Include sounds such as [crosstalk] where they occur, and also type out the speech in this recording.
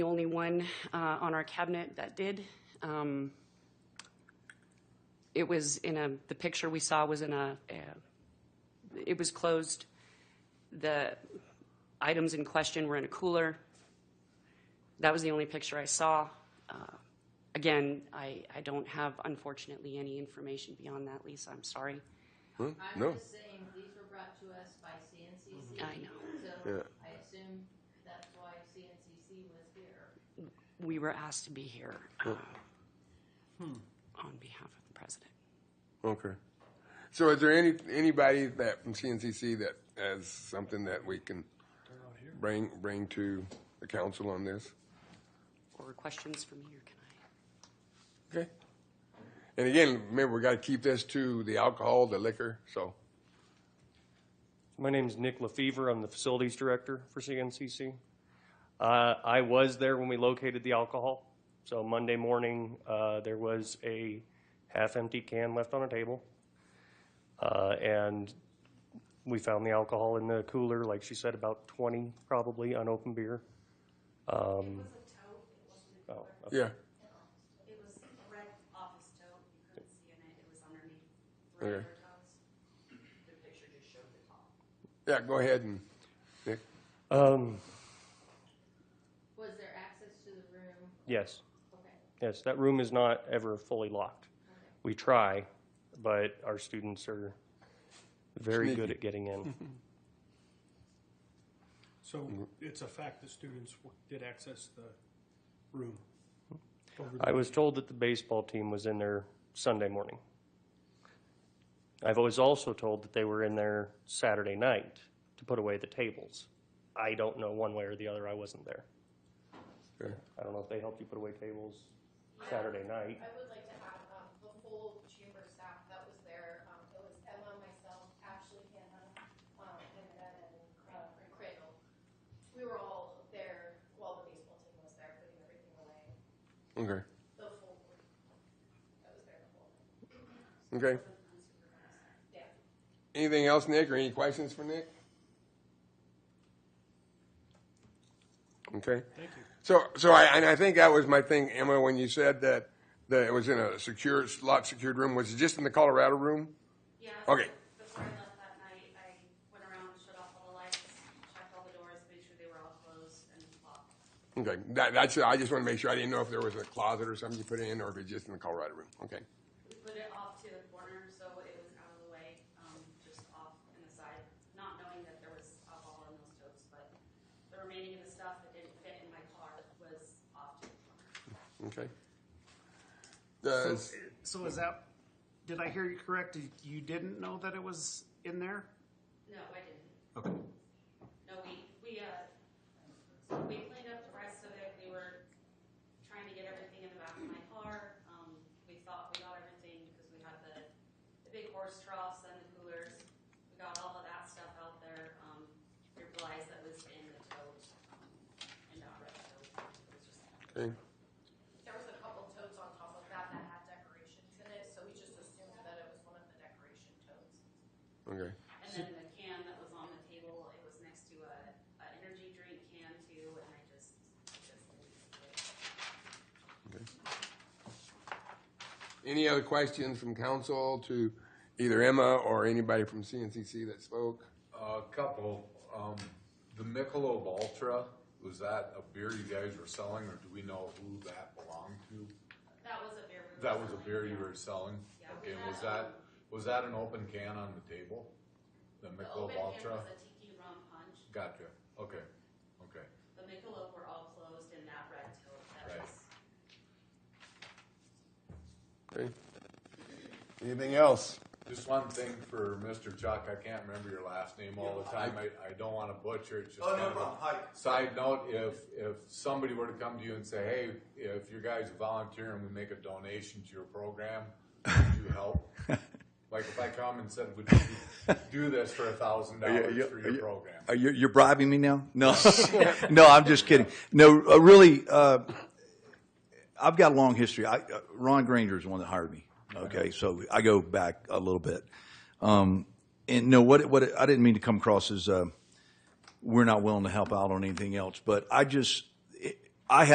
one uh, on our cabinet that did. Um, It was in a, the picture we saw was in a, a- it was closed. The items in question were in a cooler. That was the only picture I saw. Uh, Again, I, I don't have unfortunately any information beyond that, Lisa, I'm sorry. No. I'm just saying, these were brought to us by CNCC. I know. So I assume that's why CNCC was here. We were asked to be here uh, on behalf of the president. Okay. So is there any, anybody that from CNCC that has something that we can bring, bring to the council on this? Or questions from here, can I? Okay. And again, remember, we gotta keep this to the alcohol, the liquor, so, My name's Nick LaFever. I'm the facilities director for CNCC. Uh, I was there when we located the alcohol. So Monday morning, uh, there was a half-empty can left on a table. Uh, and we found the alcohol in the cooler, like she said, about 20 probably unopened beer. Um, oh, okay. yeah, It was a red office tote, you couldn't see in it, it was underneath three Okay. other totes. The picture just showed the top. yeah, go ahead and, Nick, Um, Was there access to the room? yes. Okay. Yes, that room is not ever fully locked. We try, but our students are very good Sneaky. at getting in. So it's a fact that students w- did access the room. over the- I was told that the baseball team was in there Sunday morning. I was also told that they were in there Saturday night to put away the tables. I don't know one way or the other. I wasn't there. Okay. I don't know if they helped you put away tables Saturday night. I would like to have um, the whole chamber staff that was there. Um, It was Emma, myself, Ashley, Hannah, um, and then uh, Cradle. We were all there while the baseball team was there, putting everything away. okay, The full group that was there the whole night. okay. Yeah. Anything else, Nick, or any questions for Nick? Okay. Thank you. So, so I, and I think that was my thing, Emma, when you said that, that it was in a secure, locked secured room, was it just in the Colorado room? Yeah. Okay. so Before I left that night, I went around, shut off all the lights, checked all the doors, made sure they were all closed and locked. Okay, that, that's, I just wanna make sure, I didn't know if there was a closet or something you put it in, or if it's just in the Colorado room, okay. We put it off to the corner, so it was out of the way, um, just off in the side, not knowing that there was alcohol in those totes, but the remaining of the stuff that didn't fit in my car was off to the corner. Okay. Does, So is that, did I hear you correct? You- You didn't know that it was in there? No, I didn't. Okay. No, we, we, uh, so we cleaned up the rest of it, we were trying to get everything in the back of my car, um, we thought we got everything because we had the, the big horse troughs and the coolers. We got all of that stuff out there, um, your flies that was in the tote, um, and not red tote, it was just. okay, There was a couple totes on top of that that had decorations in it, so we just assumed that it was one of the decoration totes. okay, And then the can that was on the table, it was next to a, a energy drink can too, and I just, I just. any other questions from council to either Emma or anybody from CNCC that spoke? A couple, um, the Michelob Ultra, was that a beer you guys were selling, or do we know who that belonged to? That was a beer we were That was a selling, beer you yeah. were selling? Yeah. Okay, and was that, was that an open can on the table? The The Michelob open hand Ultra? was a tiki rum punch. Gotcha, okay, okay. The Michelob were all closed in that red tote. That Right. was Okay. Anything else? Just one thing for Mr. Chuck, I can't remember your last name all the time, I, I don't wanna butcher it, just Oh, no kind of a- problem. Hi. Side note, if, if somebody were to come to you and say, hey, if your guys volunteer and we make a donation to your program, would [laughs] you help? Like if I come and said, would you do this for a thousand dollars for your program? Are you, you're bribing me now? No, [laughs] no, I'm just kidding. No, uh, really, uh, I've got a long history. I, uh, Ron Granger is the one that hired me. Okay, so I go back a little bit. Um, and no, what it- what it- I didn't mean to come across as uh, we're not willing to help out on anything else, but I just